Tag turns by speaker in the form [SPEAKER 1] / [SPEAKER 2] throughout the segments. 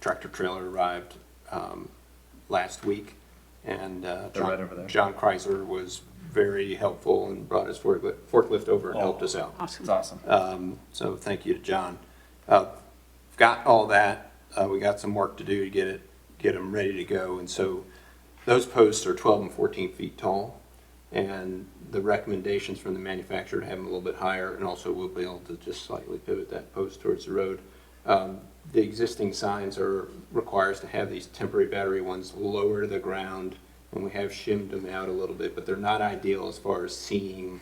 [SPEAKER 1] tractor trailer arrived um, last week, and uh,
[SPEAKER 2] They're right over there.
[SPEAKER 1] John Kreiser was very helpful and brought his forklift, forklift over and helped
[SPEAKER 2] Oh.
[SPEAKER 1] us out.
[SPEAKER 2] It's awesome.
[SPEAKER 1] Um, so thank you to John. Uh, got all that. Uh, we got some work to do to get it, get them ready to go. And so those posts are 12 and 14 feet tall. And the recommendations from the manufacturer to have them a little bit higher, and also we'll be able to just slightly pivot that post towards the road. Um, the existing signs are requires to have these temporary battery ones lower to the ground, and we have shimmed them out a little bit, but they're not ideal as far as seeing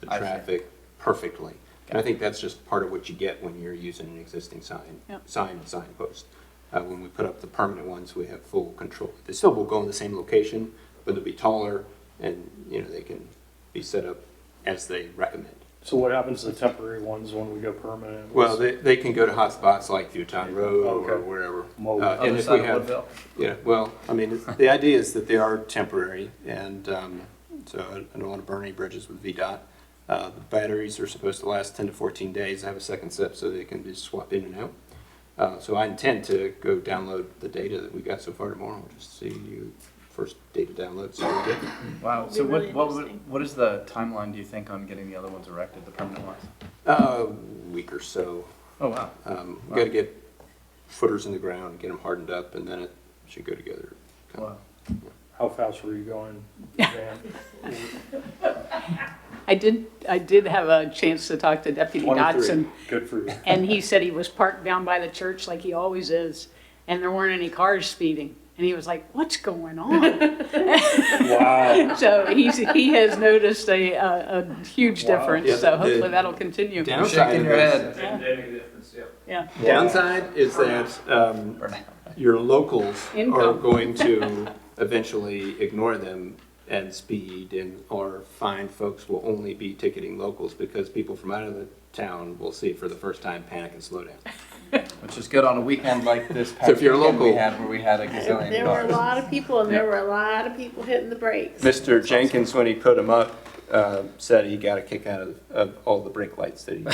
[SPEAKER 1] the
[SPEAKER 2] I see.
[SPEAKER 1] traffic perfectly. And I think that's just part of what you get when you're using an existing sign,
[SPEAKER 3] Yep.
[SPEAKER 1] sign and signpost. Uh, when we put up the permanent ones, we have full control. They still will go in the same location, but they'll be taller and, you know, they can be set up as they recommend.
[SPEAKER 4] So what happens to the temporary ones when we go permanent?
[SPEAKER 1] Well, they, they can go to hotspots like Newtown Road or
[SPEAKER 4] Okay.
[SPEAKER 1] wherever.
[SPEAKER 4] Mobile.
[SPEAKER 1] Uh, and
[SPEAKER 2] Other
[SPEAKER 1] if
[SPEAKER 2] side
[SPEAKER 1] we
[SPEAKER 2] of
[SPEAKER 1] have-
[SPEAKER 2] Woodville.
[SPEAKER 1] Yeah, well, I mean, it's- the idea is that they are temporary, and um, so I- I don't want to burn any bridges with VDOT. Uh, The batteries are supposed to last 10 to 14 days, have a second set, so they can be swapped in and out. Uh, So I intend to go download the data that we got so far tomorrow, just see you, first data download, so we get.
[SPEAKER 2] Wow.
[SPEAKER 3] It'd
[SPEAKER 2] So
[SPEAKER 3] be
[SPEAKER 2] what,
[SPEAKER 3] really
[SPEAKER 2] what, would-
[SPEAKER 3] interesting.
[SPEAKER 2] what is the timeline, do you think, on getting the other ones erected, the permanent ones?
[SPEAKER 1] A Uh, week or so.
[SPEAKER 2] Oh, wow.
[SPEAKER 1] Um, Got to get footers in the ground, get them hardened up, and then it should go together.
[SPEAKER 2] Wow.
[SPEAKER 4] How fast were you going? Van?
[SPEAKER 3] I did, I did have a chance to talk to Deputy
[SPEAKER 4] 23.
[SPEAKER 3] Dodson,
[SPEAKER 4] Good for you.
[SPEAKER 3] and he said he was parked down by the church like he always is, and there weren't any cars speeding. And he was like, what's going on?
[SPEAKER 4] Wow.
[SPEAKER 3] So he's, he has noticed a, a, a huge
[SPEAKER 4] Wow.
[SPEAKER 3] difference,
[SPEAKER 1] Yeah,
[SPEAKER 3] so
[SPEAKER 1] the-
[SPEAKER 3] hopefully that'll continue.
[SPEAKER 1] Down-
[SPEAKER 2] You're
[SPEAKER 1] Outside
[SPEAKER 2] shaking
[SPEAKER 1] of
[SPEAKER 2] your
[SPEAKER 1] this.
[SPEAKER 2] head.
[SPEAKER 3] Yeah,
[SPEAKER 1] Downside is that um, your locals are
[SPEAKER 3] Income.
[SPEAKER 1] going to eventually ignore them and speed and, or fine folks will only be ticketing locals because people from out of the town will see it for the first time, panic and slow down.
[SPEAKER 2] Which is good on a weekend like this past
[SPEAKER 1] So if you're
[SPEAKER 2] weekend we
[SPEAKER 1] local-
[SPEAKER 2] had, where we had a gazillion
[SPEAKER 5] There were a
[SPEAKER 2] cars.
[SPEAKER 5] lot of people, and there were a lot of people hitting the brakes.
[SPEAKER 1] Mr. Jenkins, when he put them up, uh, said he got a kick out of, of all the brake lights that he.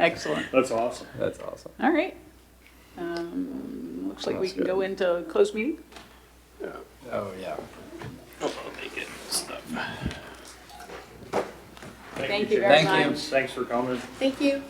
[SPEAKER 3] excellent.
[SPEAKER 4] That's awesome.
[SPEAKER 2] That's awesome.
[SPEAKER 3] All right. Um, looks like we
[SPEAKER 2] Sounds
[SPEAKER 3] can go
[SPEAKER 2] good.
[SPEAKER 3] into closed meeting.
[SPEAKER 2] Oh, yeah.
[SPEAKER 3] Thank you
[SPEAKER 4] Jim.
[SPEAKER 3] very
[SPEAKER 2] Thank you.
[SPEAKER 3] much.
[SPEAKER 4] Thanks for coming.
[SPEAKER 5] Thank you.